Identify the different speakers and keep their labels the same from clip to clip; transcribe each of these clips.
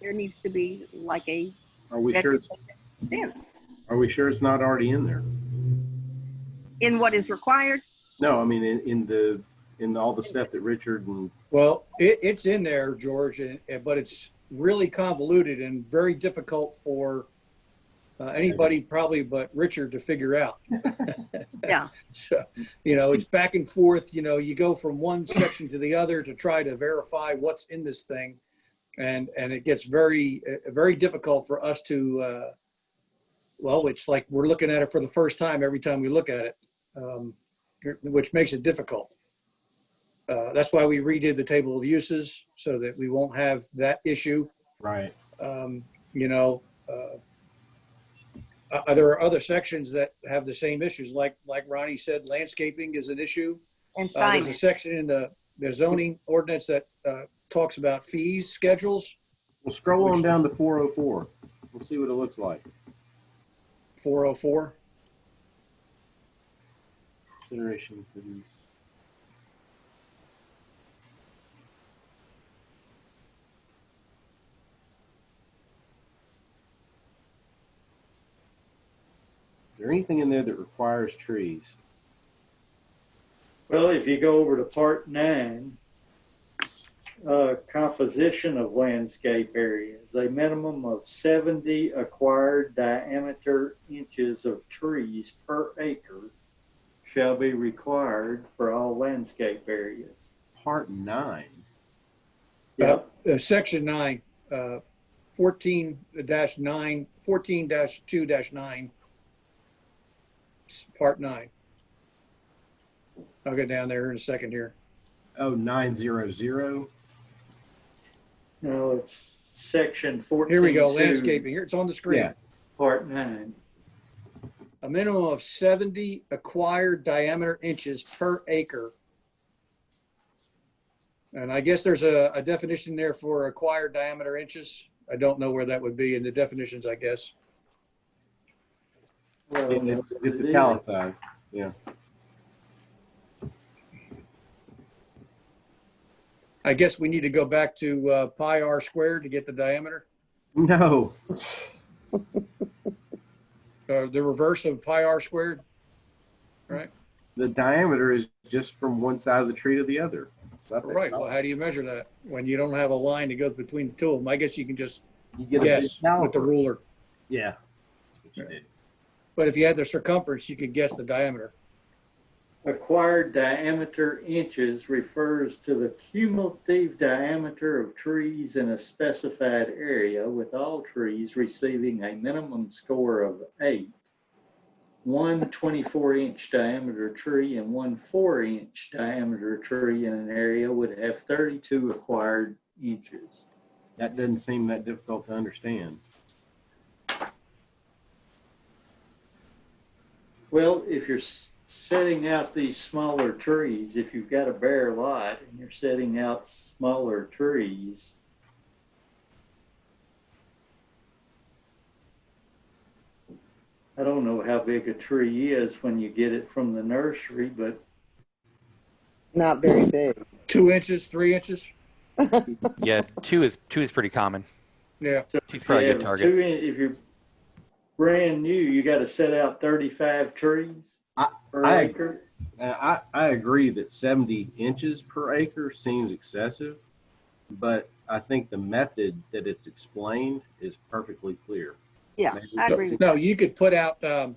Speaker 1: there needs to be like a
Speaker 2: Are we sure, it's
Speaker 1: fence
Speaker 2: are we sure it's not already in there?
Speaker 1: in what is required.
Speaker 2: No, I mean, in, in the, in all the stuff that Richard and,
Speaker 3: Well, it, it's in there, George, and, and- but it's really convoluted and very difficult for uh, anybody probably but Richard to figure out.
Speaker 1: Yeah.
Speaker 3: So, you know, it's back and forth, you know, you go from one section to the other to try to verify what's in this thing. And, and it gets very, uh, very difficult for us to, uh, well, it's like we're looking at it for the first time every time we look at it, um, which makes it difficult. Uh, That's why we redid the table of uses so that we won't have that issue.
Speaker 2: right,
Speaker 3: Um, You know, uh, uh, there are other sections that have the same issues. Like, like Ronnie said, landscaping is an issue.
Speaker 1: And
Speaker 3: Uh, There's a
Speaker 1: signage,
Speaker 3: section in the the zoning ordinance that uh, talks about fees, schedules,
Speaker 2: well, scroll on down to 404. We'll see what it looks like.
Speaker 3: 404.
Speaker 2: Consideration for these. Is there anything in there that requires trees?
Speaker 4: Well, if you go over to part nine, uh, composition of landscape areas, a minimum of seventy acquired diameter inches of trees per acre shall be required for all landscape areas.
Speaker 2: Part nine.
Speaker 4: Yep,
Speaker 3: Uh, Section 9, uh, 14-9, 14-2-9, s- Part 9. I'll go down there in a second here.
Speaker 2: Oh, nine zero zero.
Speaker 4: no, it's section fourteen.
Speaker 3: Here we go, landscaping, here, it's on the
Speaker 2: Yeah.
Speaker 3: screen.
Speaker 4: Part nine,
Speaker 3: A minimum of 70 acquired diameter inches per acre. And I guess there's a a definition there for acquired diameter inches. I don't know where that would be in the definitions, I guess.
Speaker 4: well,
Speaker 2: It's it's
Speaker 4: it is.
Speaker 2: italicized.
Speaker 3: I guess we need to go back to uh, pi r squared to get the diameter,
Speaker 2: No,
Speaker 3: uh, the reverse of pi r squared.
Speaker 2: the diameter is just from one side of the tree to the other. It's not that
Speaker 3: Right. Well,
Speaker 2: tall.
Speaker 3: how do you measure that when you don't have a line that goes between the two of them? I guess you can just
Speaker 2: You get a big
Speaker 3: guess with the
Speaker 2: caliper.
Speaker 3: ruler.
Speaker 2: Yeah. That's what you did.
Speaker 3: But if you had the circumference, you could guess the diameter.
Speaker 4: Acquired diameter inches refers to the cumulative diameter of trees in a specified area, with all trees receiving a minimum score of eight. One 24-inch diameter tree and one 4-inch diameter tree in an area would have 32 acquired inches.
Speaker 2: That doesn't seem that difficult to understand.
Speaker 4: Well, if you're s- setting out these smaller trees, if you've got a bare lot and you're setting out smaller trees, I don't know how big a tree is when you get it from the nursery, but
Speaker 5: Not very big.
Speaker 3: Two inches, three inches.
Speaker 6: Yeah, two is two is pretty common.
Speaker 3: Yeah.
Speaker 6: Two's probably a
Speaker 4: yeah,
Speaker 6: good target.
Speaker 4: two in- if you're brand new, you got to set out 35 trees
Speaker 2: I-
Speaker 4: per
Speaker 2: I-
Speaker 4: acre.
Speaker 2: Uh, I, I agree that 70 inches per acre seems excessive, but I think the method that it's explained is perfectly clear.
Speaker 1: yeah, I agree. with
Speaker 3: No, you could put out. Um,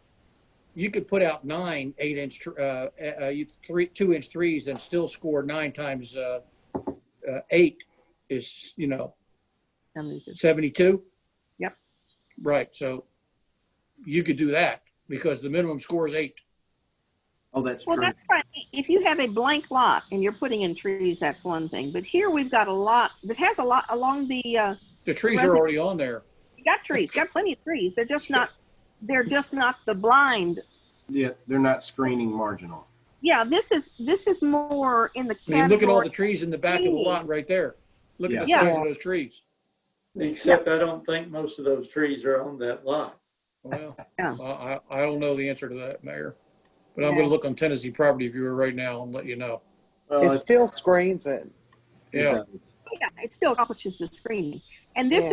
Speaker 3: you could put out nine eight inch, tr- uh, uh, you three two inch threes and still score nine times uh, uh, eight is you know
Speaker 1: them.
Speaker 3: 72?
Speaker 1: Yep.
Speaker 3: Right, so you could do that because the minimum score is eight.
Speaker 2: Oh, that's
Speaker 1: Well,
Speaker 2: true.
Speaker 1: that's fine. If you have a blank lot and you're putting in trees, that's one thing. But here we've got a lot that has a lot along the, uh,
Speaker 3: The trees are
Speaker 1: Resi-
Speaker 3: already on there.
Speaker 1: you got trees, got plenty of trees. They're just not, they're just not the blind.
Speaker 2: Yeah, they're not screening marginal.
Speaker 1: Yeah, this is, this is more in the
Speaker 3: I mean, look at all the
Speaker 1: category.
Speaker 3: trees in the back of the lot right there. Look at the
Speaker 1: Yeah.
Speaker 3: size of those trees.
Speaker 4: Except I don't think most of those trees are on that lot.
Speaker 3: Well,
Speaker 1: Yeah.
Speaker 3: I, I I don't know the answer to that, Mayor. But I'm gonna
Speaker 1: Yeah.
Speaker 3: look on Tennessee Property Viewer right now and let you know.
Speaker 2: Well,
Speaker 5: It
Speaker 2: it's-
Speaker 5: still screens it.
Speaker 3: Yeah.
Speaker 1: Yeah, It still accomplishes the screening. And this
Speaker 5: Yeah.
Speaker 1: is